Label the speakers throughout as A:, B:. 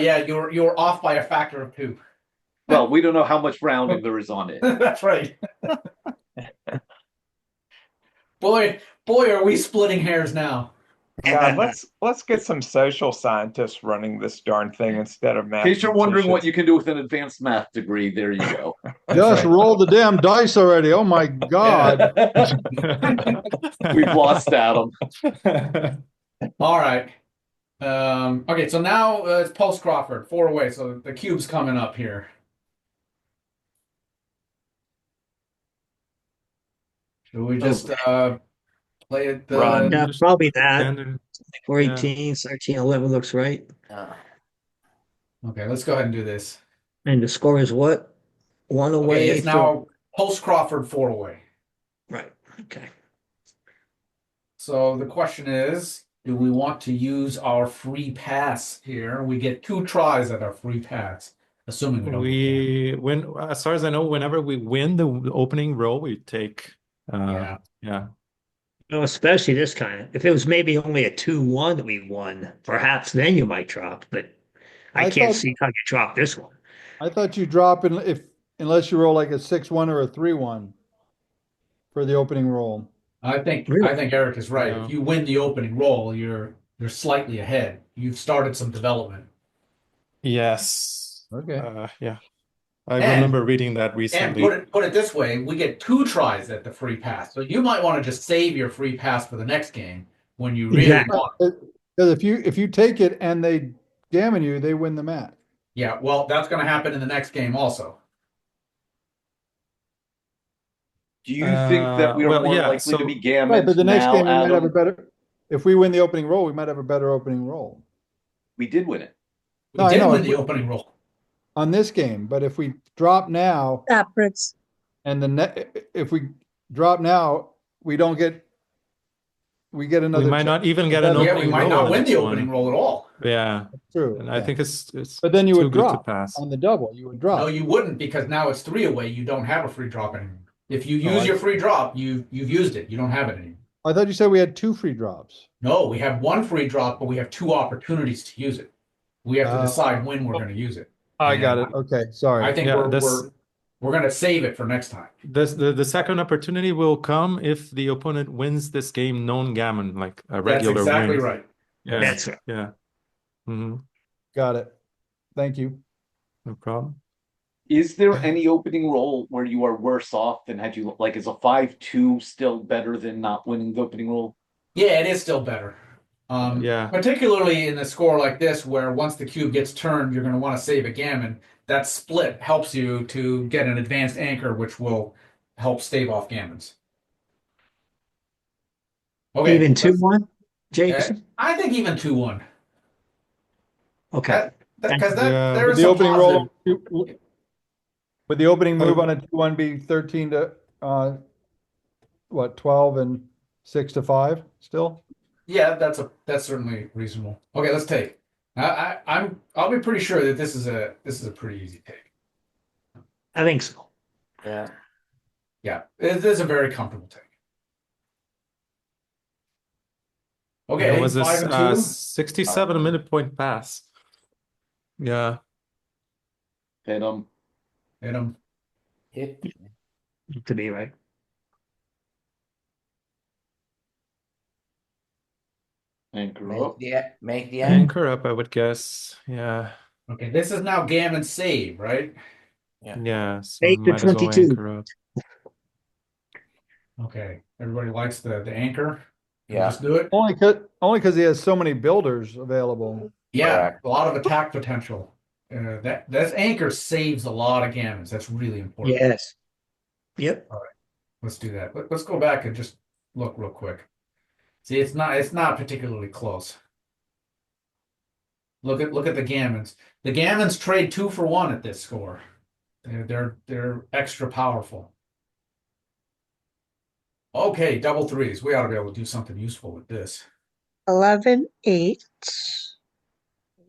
A: yeah, you're you're off by a factor of two.
B: Well, we don't know how much rounding there is on it.
A: That's right. boy, boy, are we splitting hairs now?
C: God, let's let's get some social scientists running this darn thing instead of
B: In
C: math.
B: case you're wondering what you can do with an advanced math degree, there you go.
D: Just roll the damn dice already. Oh my God.
B: We've lost Adam.
A: All right. Um, okay, so now uh, it's Pulse Crawford, four away. So the cube's coming up here. Should we
E: Oh.
A: just uh, play it? uh, The...
C: Run.
E: Yeah, probably that.
F: Standard.
E: Four
F: yeah.
E: eighteen, thirteen, eleven looks right.
A: Okay, let's go ahead and do this.
E: And the score is what? One
A: Okay,
E: away
A: it's
E: from-
A: now Pulse Crawford, four away.
E: Right, okay.
A: So the question is, do we want to use our free pass here? We get two tries at our free pass, assuming we don't. get banned.
F: We when as far as I know, whenever we win the w- opening roll, we take uh
A: yeah.
F: yeah.
E: No, especially this kind of, if it was maybe only a two one that we won, perhaps then you might drop, but I
D: I
E: can't
D: thought-
E: see how you drop this one.
D: I thought you drop in if, unless you roll like a six, one or a three, one for the opening roll.
A: I think
E: Really?
A: I think Eric is right. If you win the opening roll, you're you're slightly ahead. You've started some development.
F: Yes.
D: Okay.
F: Uh, yeah. I
A: And-
F: remember reading that
A: And
F: recently.
A: put it put it this way, we get two tries at the free pass. So you might want to just save your free pass for the next game when you really
E: Exactly.
A: want. it.
D: Because if you, if you take it and they damn you, they win the match.
A: Yeah, well, that's going to happen in the next game also.
B: Do you think that we are
F: Uh, well,
B: more
F: yeah,
B: likely
F: so-
B: to be
D: Right,
B: gammons
D: but the next
B: now,
D: game, we might have a
B: Adam?
D: better, if we win the opening roll, we might have a better opening roll
B: We did win it.
A: We
D: No, I
A: did
D: know.
A: win the opening roll.
D: on this game. But if we drop now
G: Backwards.
D: and the net, if we drop now, we don't get, we get
F: We
D: another.
F: might not even get an
D: Yeah, we
A: Yeah, we
F: opening
A: might
F: roll
A: not
F: on
A: win
F: this
A: the
F: one.
A: opening roll at all.
F: Yeah.
D: True.
F: And I
D: yeah.
F: think it's it's
D: But then you
F: too
D: would
F: good to
D: drop
F: pass.
D: on the double. You would drop.
A: No, you wouldn't because now it's three away. You don't have a free drop anymore. If you
D: Oh,
A: use
D: I
A: your free drop, you you've used it. You don't have it anymore.
D: I thought you said we had two free drops.
A: No, we have one free drop, but we have two opportunities to use it. We have to
D: Oh.
A: decide when we're going to use it.
F: I
A: got it.
D: Okay,
A: I
D: sorry.
A: think
F: Yeah,
A: we're,
F: this-
A: we're we're going to save it for next time.
F: This the, the second opportunity will come if the opponent wins this game non-gammon, like a regular
A: That's exactly
F: win.
A: right.
F: Yeah.
E: That's right.
F: Yeah. hmm
D: Got it. Thank you.
F: No problem.
B: Is there any opening roll where you are worse off than had you like is a five two still better than not winning the opening roll?
A: Yeah, it is still better. Um,
F: Yeah.
A: Particularly in a score like this, where once the cube gets turned, you're going to want to save a gammon. That split helps you to get an advanced anchor, which will help stave off gammons. Okay.
E: Even two
A: let's-
E: one, Jason?
A: I think even two one.
E: Okay,
A: Because that,
F: Yeah,
A: there
D: Would
A: is
D: the
A: some
D: opening
A: positive-
D: roll, would the opening
A: Oh,
D: move on a two one be thirteen to, uh, what, twelve and six to five still?
A: Yeah, that's a that's certainly reasonable. Okay, let's take. I, I I'm I'll be pretty sure that this is a this is a pretty easy take.
E: I think so.
B: Yeah.
A: Yeah, it is a very comfortable take. Okay,
F: It was a
A: five
F: s-
A: and
F: uh,
A: two. Oh.
F: 67 minute point pass. Yeah.
B: And um
A: Hit 'em.
E: To be right.
B: anchor
H: Make
B: up.
H: the, e-, make the end.
F: Anchor up, I would guess. Yeah.
A: Okay, this is now gammon save, right?
H: Yeah.
F: Yeah. So
E: Eight to
F: might as well
E: 22.
F: anchor up.
A: Okay, everybody likes the the anchor. We'll
H: Yeah.
A: just do it.
D: Only 'cause- only because he has so many builders available.
A: Yeah,
H: Correct.
A: a lot of attack potential. Uh, that that anchor saves a lot of gammons. That's really important.
E: Yes. Yep,
A: Let's do that. Let, us go back and just look real quick. See, it's not it's not particularly close. Look at look at the gammons. The gammons trade two for one at this score. They're they're they're extra powerful. Okay, double threes. We ought to be able to do something useful with this.
G: Eleven, eight.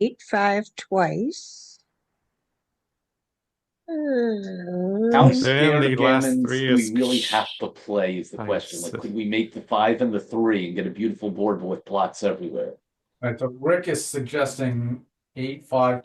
G: Eight, five twice.
B: How
G: Uh,
B: scared
F: Apparently
B: of
F: last
B: gammons
F: three
B: do we
F: is-
B: really have to play is the
F: I
B: question.
F: see.
B: Like could we make the five and the three and get a beautiful board with plots everywhere?
A: All right, so Rick is suggesting eight, five,